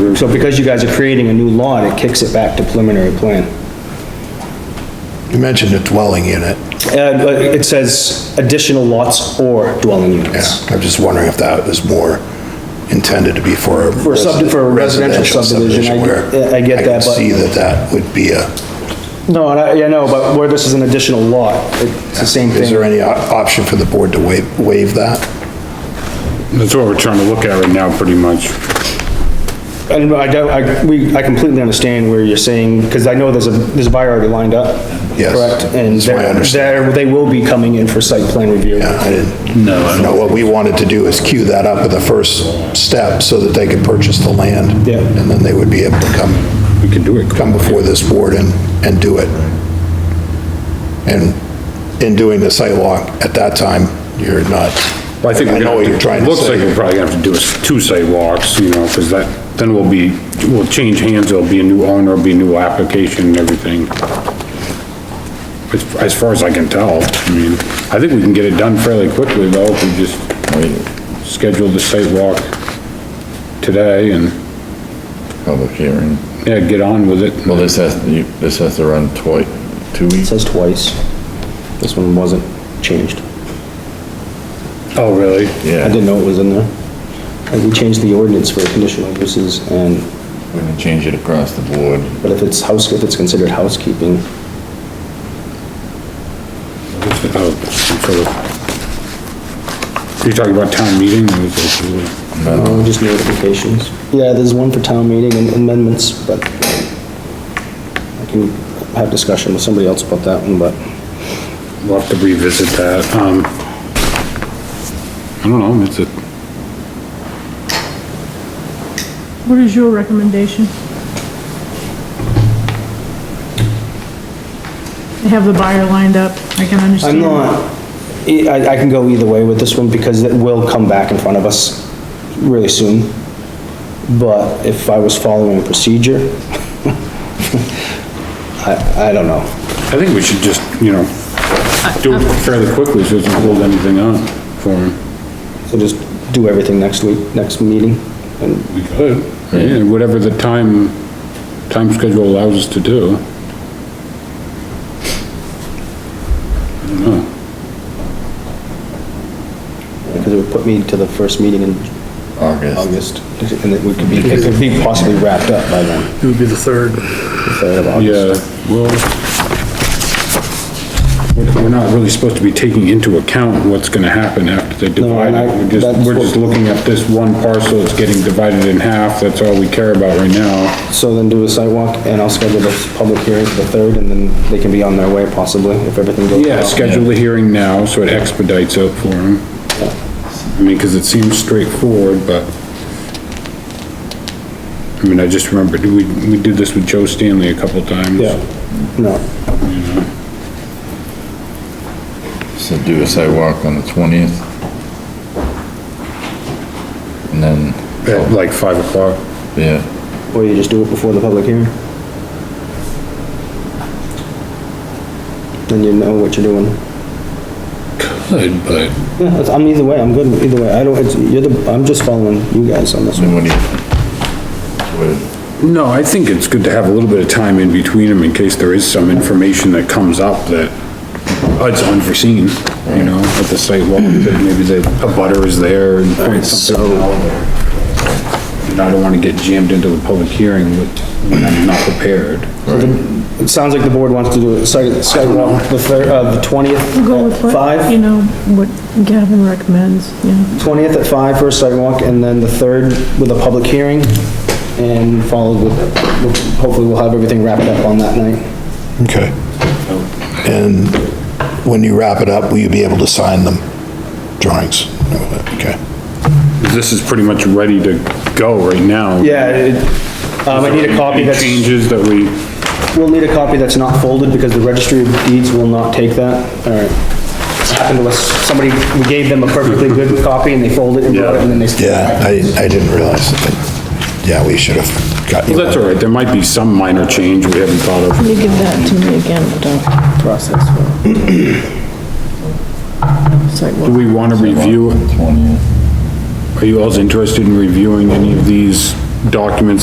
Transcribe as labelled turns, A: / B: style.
A: through. So because you guys are creating a new lot, it kicks it back to preliminary plan.
B: You mentioned a dwelling unit.
A: And uh, it says additional lots or dwelling
B: Yeah,
A: units.
B: I'm just wondering if that is more intended to be for a.
A: For a sub- for a residential subdivision, I-
B: where
A: I get
B: I can
A: that, but-
B: see that that would be a,
A: No, and I, yeah, no, but where this is an additional lot, it's the same
B: is there
A: thing.
B: any op- option for the board to waive, waive that?
C: That's what we're trying to look at right now, pretty much.
A: And I don't, I, we, I completely understand where you're saying, because I know there's a, there's a buyer already lined up.
B: Yes,
A: Correct? And
B: that's what I
A: they're,
B: understand.
A: they're- they will be coming in for site plan review.
B: Yeah, I didn't. No. You know, what we wanted to do is queue that up at the first step so that they could purchase the land.
A: Yeah.
B: And then they would be able to come. We can do it. Come before this board and, and do it. And in doing the site walk, at that time, you're not.
C: Well, I think we're
B: know
C: gonna,
B: what you're
C: have
B: trying
C: to-
B: to
C: looks like
B: say.
C: we're probably gonna have to do is two sidewalks, you know, because that, then we'll be, we'll change hands, there'll be a new owner, there'll be a new application and everything. As, as far as I can tell, I mean, I think we can get it done fairly quickly though, if we just schedule the sidewalk today and,
D: public hearing.
C: yeah, get on with it.
D: Well, this has, you- this has to run twice, two
A: It
D: weeks?
A: says twice. This one wasn't changed.
C: Oh, really?
A: I
D: Yeah,
A: didn't know it was in there. Like, we changed the ordinance for conditional uses and,
D: we're gonna change it across the board.
A: but if it's house, if it's considered housekeeping,
C: Oh, some sort of- You're talking about town meeting? It was actually-
A: uh, just notifications. Yeah, there's one for town meeting and amendments, but I can have discussion with somebody else about that one, but
C: We'll have to revisit that, um. I don't know, it's a,
E: What is your recommendation? They have the buyer lined up, I can
A: I'm
E: understand.
A: not, I, I can go either way with this one because it will come back in front of us really soon. But if I was following a procedure, I, I don't know.
C: I think we should just, you know, do it fairly quickly so it doesn't hold anything up for him.
A: So just do everything next week, next meeting, and
C: We could. Yeah, whatever the time, time schedule allows us to do. I don't know.
A: because it would put me to the first meeting in
D: August,
A: August, and it would be, it could be possibly wrapped up by then. It would be the third. The third of August.
C: Yeah, well, we're- we're not really supposed to be taking into account what's gonna happen after they
A: No,
C: divide
A: and I-
C: it. We're just,
A: that's
C: we're
A: what-
C: just looking at this one parcel that's getting divided in half, that's all we care about right now.
A: So then do a sidewalk, and I'll schedule the public hearing for the third, and then they can be on their way possibly, if everything goes well.
C: Yeah, schedule the hearing now, so it expedites it for them. I mean, cause it seems straightforward, but. I mean, I just remembered, we, we did this with Joe Stanley a couple times.
A: Yeah, no.
D: so do a sidewalk on the twentieth. And then,
C: At like five o'clock.
D: yeah,
A: Or you just do it before the public hearing? Then you know what you're doing.
C: Good, but.
A: Yeah, that's- I'm either way, I'm good either way, I don't, it's, you're the, I'm just following you guys on this one.
D: then what do you? what-
C: No, I think it's good to have a little bit of time in between them in case there is some information that comes up that uh, it's unforeseen, you know, at the site level, that maybe the, a butter is there and points something out. And I don't wanna get jammed into a public hearing with, when I'm not prepared.
A: It sounds like the board wants to do a site, site walk, the third, uh, the twentieth
E: We'll go
A: at
E: with what, you
A: five?
E: know, what Gavin recommends, yeah.
A: Twentieth at five for a site walk, and then the third with a public hearing, and followed with, hopefully we'll have everything wrapped up on that night.
B: Okay. And when you wrap it up, will you be able to sign them? Drawings? Okay.
C: This is pretty much ready to go right now.
A: Yeah, it, um, I need a copy
C: Any
A: that's,
C: Changes that we,
A: we'll need a copy that's not folded, because the registry of deeds will not take that, alright. Happened to us, somebody, we gave them a perfectly good copy, and they folded it and brought it, and then they.
B: Yeah, I, I didn't realize that. Yeah, we should have gotten.
C: well, that's all right, there might be some minor change we haven't thought of.
E: You give that to me again, the
A: Process.
C: Do
E: sidewalk.
C: we wanna review,
D: Twentieth.
C: are you all interested in reviewing any of these documents